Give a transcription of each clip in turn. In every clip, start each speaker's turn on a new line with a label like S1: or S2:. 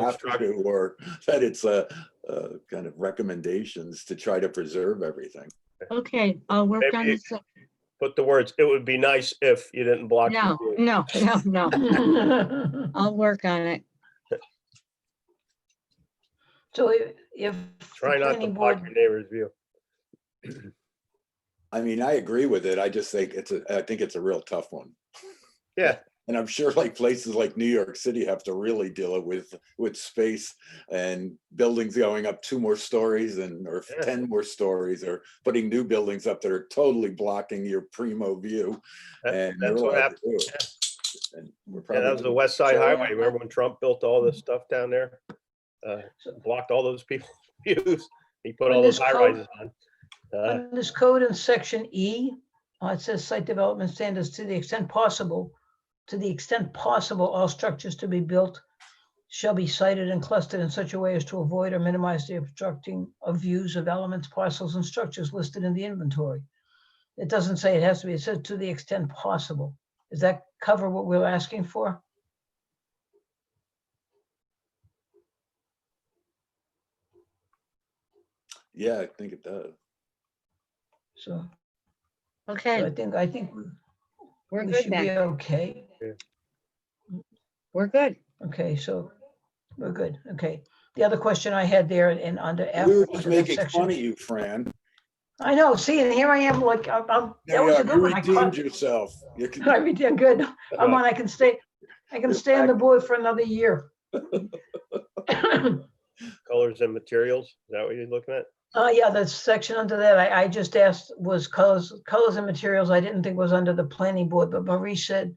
S1: have
S2: obstruction.
S1: to, or that it's a, uh kind of recommendations to try to preserve everything.
S3: Okay, I'll work on
S2: Maybe-
S3: this.
S2: Put the words, it would be nice if you didn't block. the
S3: No, Mm-hmm.
S2: view."
S3: no, no, no. I'll work on it.
S4: So if, if. the
S2: Try not to
S4: planning
S2: block
S4: board-
S2: your neighbor's view.
S1: I mean, I agree with it. I just think it's a, I think it's a real tough one.
S2: Yeah.
S1: And I'm sure like places like New York City have to really deal with, with space and buildings going up two more stories and, or
S2: Yeah.
S1: 10 more stories, or putting new buildings up that are totally blocking your primo view.
S2: That-
S1: And
S2: that's
S1: you're
S2: what
S1: allowed to
S2: happened.
S1: do it. And we're
S2: Yeah, that was the
S1: probably-
S2: West Side
S4: So, yeah.
S2: Highway. Remember when Trump built all this stuff down there? Uh, Blocked all those people's views. He put
S4: When
S2: all those
S4: this
S2: high
S4: code-
S2: rises on. Uh,
S4: On this code in section E, uh, it says site development standards to the extent possible, to the extent possible, all structures to be built shall be sited and clustered in such a way as to avoid or minimize the obstructing of views of elements, parcels, and structures listed in the inventory. It doesn't say it has to be, it says to the extent possible. Does that cover what we're asking for?
S1: Yeah, I think it does.
S4: So so I
S3: Okay,
S4: think, I think we-
S3: we're
S4: we
S3: good
S4: should be
S3: then.
S4: okay.
S3: We're good.
S4: Okay, so we're good. Okay. The other question I had there and under F.
S1: We were
S4: under
S1: just
S4: that
S1: making
S4: section-
S1: fun of you, Fran.
S4: I know, see, and here I am like, I'm, I'm- that
S1: There you
S4: was
S1: are.
S4: a good
S1: You
S4: one. I
S1: redeemed
S4: caught-
S1: yourself. You can-
S4: I mean, yeah, good. I'm on, I can stay, I can
S1: You're
S4: stay on the
S1: back.
S4: board for another year. Uh,
S2: Colors and materials, is that what you're looking at?
S4: Oh, yeah, that section under that, I, I just asked was colors, colors and materials. I didn't think was under the planning board, but Marie said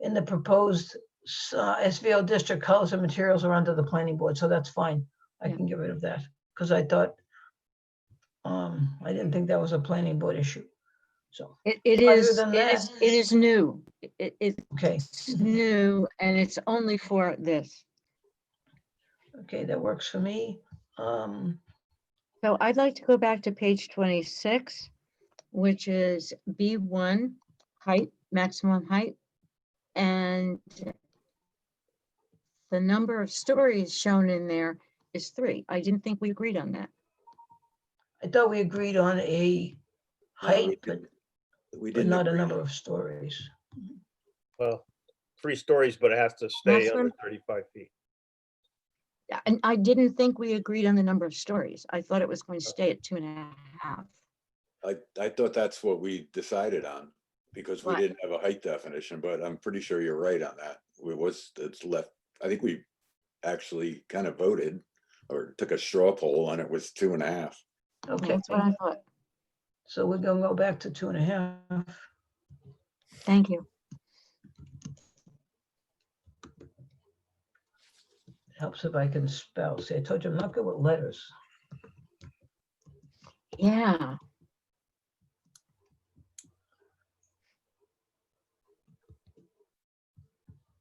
S4: in the proposed s- uh, SVO district, colors and materials are under the planning board, so that's fine. I
S3: Yeah.
S4: can get rid of that, because I thought, um, I didn't think that was a planning board issue. So,
S3: It, it
S4: Other
S3: is,
S4: than
S3: it is,
S4: that-
S3: it is new. It, it's
S4: okay.
S3: new and it's only for this.
S4: Okay, that works for me. Um,
S3: So I'd like to go back to page twenty-six, which is B one, height, maximum height. And the number of stories shown in there is three. I didn't think we agreed on that.
S4: I thought we agreed on a
S1: No, we
S4: height, but,
S1: didn't. We
S4: but
S1: didn't.
S4: not a
S1: agree.
S4: number of stories.
S2: Well, three stories, but it has to stay
S3: Maximum-
S2: under 35 feet.
S3: Yeah, And I didn't think we agreed on the number of stories. I thought it was going to stay at two and a half.
S1: I, I thought that's what we decided on, because we
S3: What?
S1: didn't have a height definition, but I'm pretty sure you're right on that. It was, it's left, I think we actually kind of voted or took a straw poll and it was two and a half.
S4: Okay,
S3: That's what I thought.
S4: so we're gonna go back to two and a half.
S3: Thank you.
S4: Helps if I can spell. See, I told you I'm not good with letters.
S3: Yeah.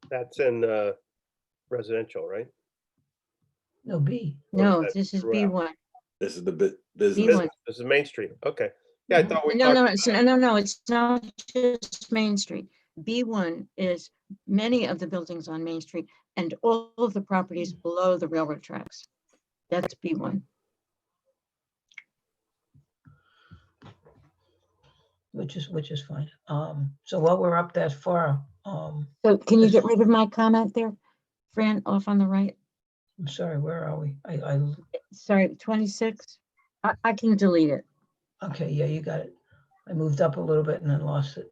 S2: That's in uh, residential, right?
S4: No B.
S2: Or is
S3: No,
S2: that
S3: this is B
S2: throughout?
S3: one.
S1: This is the bit, business,
S3: B1.
S2: Business- This is Main Street, okay. Yeah, I
S4: Mhm.
S2: thought we
S3: No,
S2: talked,
S3: no, it's, no, no, no, it's not just Main Street. B one is many of the buildings on Main Street and all of the properties below the railroad tracks. That's B one.
S4: Which is, which is fine. Um, so while we're up that far, um,
S3: So can you
S4: Yes.
S3: get rid of my comment there? Fran, off on the right,
S4: I'm sorry, where are we? I, I,
S3: sorry, twenty-six. I, I can delete it.
S4: okay, yeah, you got it. I moved up a little bit and then lost it.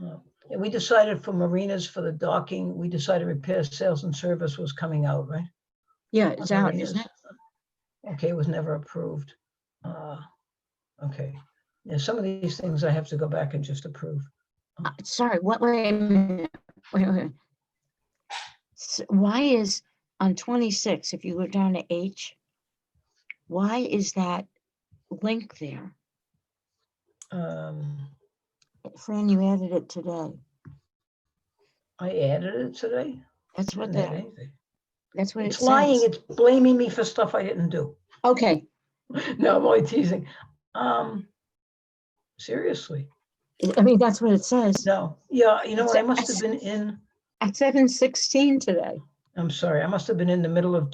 S4: Uh, And we decided for marinas, for the docking, we decided repair, sales and service was coming out, right?
S3: Yeah, it's
S4: Okay,
S3: out,
S4: it
S3: isn't
S4: is.
S3: it?
S4: Okay, it was never approved. Uh, Okay, yeah, some of these things I have to go back and just approve.
S3: Uh, Sorry, what, wait, a minute, wait, wait. S- Why is on twenty-six, if you go down to H, why is that link there?
S4: Um,
S3: Fran, you added it today.
S4: I added it today.
S3: That's what
S4: Didn't add
S3: that,
S4: anything.
S3: that's what it
S4: It's lying,
S3: says.
S4: it's blaming me for stuff I didn't do.
S3: Okay,
S4: No, I'm only teasing. Um, Seriously,
S3: I- I mean, that's what it says.
S4: no, yeah, you know
S3: It's
S4: what, I
S3: a-
S4: must have been in,
S3: At seven sixteen today.
S4: I'm sorry, I must have been in the middle of